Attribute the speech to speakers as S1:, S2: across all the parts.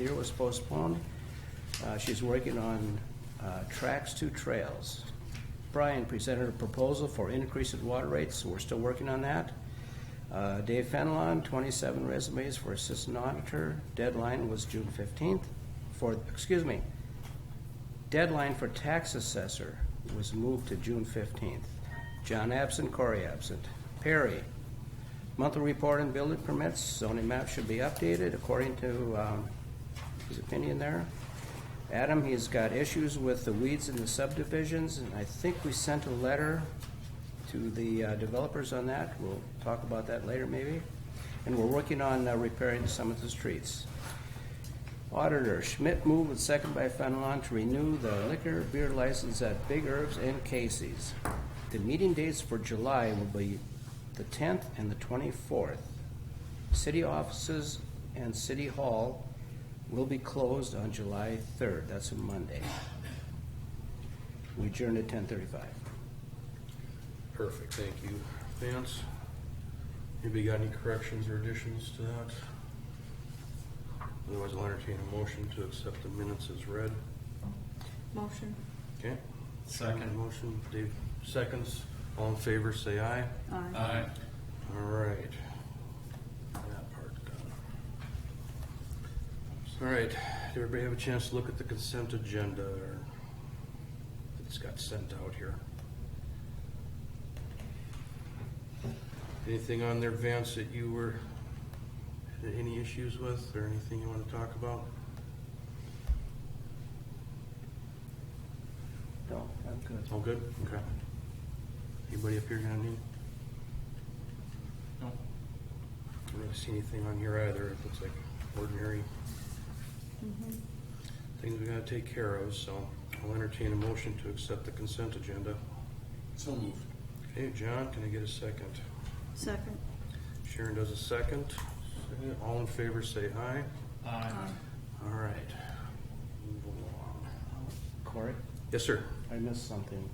S1: year was postponed. Uh, She's working on uh, tracks to trails. Brian presented a proposal for increase in water rates, we're still working on that. Uh, Dave Fenelon, 27 resumes for assistant auditor, deadline was June 15th, for, excuse me, deadline for tax assessor was moved to June 15th. John absent, Corey absent. Perry, Monthly report and building permits, zoning map should be updated according to um, his opinion there. Adam, he's got issues with the weeds in the subdivisions, and I think we sent a letter to the uh, developers on that. We'll talk about that later maybe. And we're working on uh, repairing some of the streets. Auditor Schmidt moved with second by Fenelon to renew the liquor beer license at Big Herbs and Casey's. The meeting dates for July will be the tenth and the twenty-fourth. City offices and city hall will be closed on July third, that's a Monday. We adjourn at ten thirty-five.
S2: Perfect, thank you. Vance, anybody got any corrections or additions to that? Otherwise, I'll entertain a motion to accept the minutes as read.
S3: Motion.
S2: Okay? Second. Motion, Dave, seconds. All in favor, say aye.
S3: Aye.
S4: Uh,
S2: All right. That part done. All right, did everybody have a chance to look at the consent agenda or it's got sent out here? Anything on there, Vance, that you were, had any issues with or anything you want to talk about?
S1: No, I'm good.
S2: All good? Okay. Anybody up here got any?
S4: No.
S2: I don't see anything on here either. It looks like ordinary
S3: Mm-hmm.
S2: things we gotta take care of, so I'll entertain a motion to accept the consent agenda.
S4: So moved.
S2: Okay, John, can I get a second?
S3: Second.
S2: Sharon does a second. Second. All in favor, say aye.
S4: Aye.
S2: All right. Move along.
S1: Corey,
S2: Yes, sir.
S1: I missed something.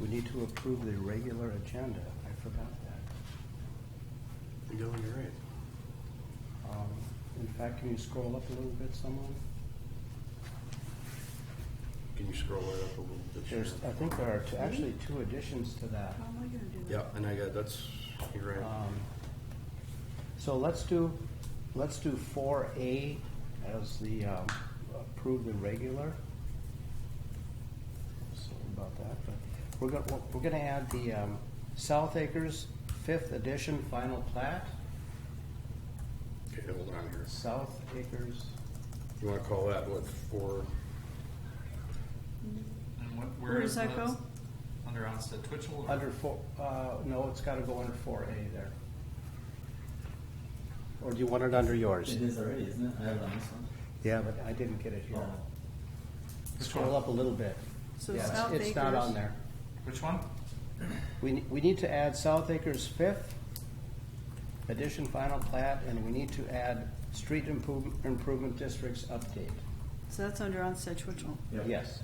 S1: We need to approve the regular agenda, I forgot that.
S2: You go, you're right.
S1: Um, In fact, can you scroll up a little bit, someone?
S2: Can you scroll right up a little bit?
S1: There's, I
S2: Sharon?
S1: think there are two- actually two additions to that.
S3: How am I gonna do that?
S2: Yeah, and I got, that's, you're right.
S1: Um, So let's do, let's do four A as the, um, approve the regular. Sorry about that, but we're gonna, we're gonna add the, um, South Acres Fifth Edition Final Plat,
S2: Okay, hold on here.
S1: South Acres,
S2: You wanna call that what, four?
S4: And what, where is?
S3: Where does that go?
S4: Under onset Twitchell? or-
S1: under four, uh, no, it's gotta go under four A there. Or do you want it under yours?
S5: It is already, isn't it? I have it on this one.
S1: Yeah, but I didn't get it here.
S5: Oh.
S1: Scroll up a little bit.
S3: So
S1: Yeah, it's-
S3: South
S1: It's not
S3: Acres.
S1: on there.
S4: Which one?
S1: We, ne- we need to add South Acres Fifth Edition Final Plat, and we need to add Street Improvement, Improvement Districts Update.
S3: So that's under on Sedgwick.
S5: Yep.
S1: Yes.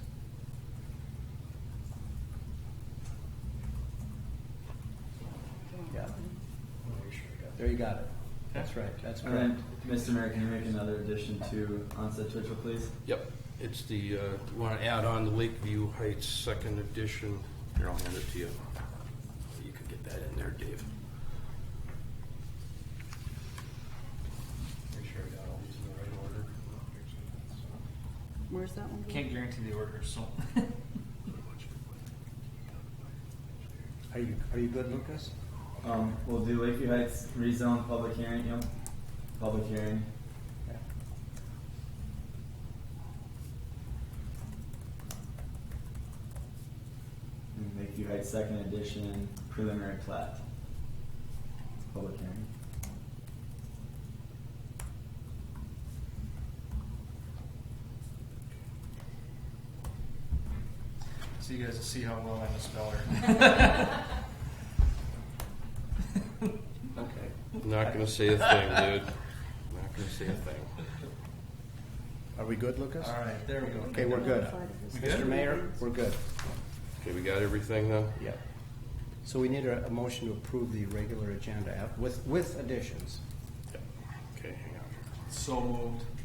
S1: Yeah, there you got it. That's right, that's
S5: All right,
S1: correct.
S5: Mr. Mayor, can you make another addition to onset Twitchell, please?
S2: Yep, it's the, uh, you wanna add on the Lakeview Heights Second Edition. Here, I'll hand it to you. You can get that in there, Dave. Make sure I got all these in the right order.
S3: Where's that one?
S4: Can't guarantee the order, so.
S1: Are you, are you good, Lucas?
S5: Um, we'll do Lakeview Heights rezone public hearing, yep. Public hearing.
S1: Yeah.
S5: And Lakeview Heights second edition preliminary plat. Public hearing.
S4: So you guys will see how well I'm a speller.
S1: Okay.
S2: Not gonna say a thing, dude. Not gonna say a thing.
S1: Are we good, Lucas?
S4: All right, there we go.
S1: Okay, we're good.
S4: We
S1: Mr.
S4: good?
S1: Mayor, we're good.
S2: Okay, we got everything then?
S1: Yep. So we need a, a motion to approve the regular agenda with, with additions.
S2: Okay, hang on.
S4: So moved.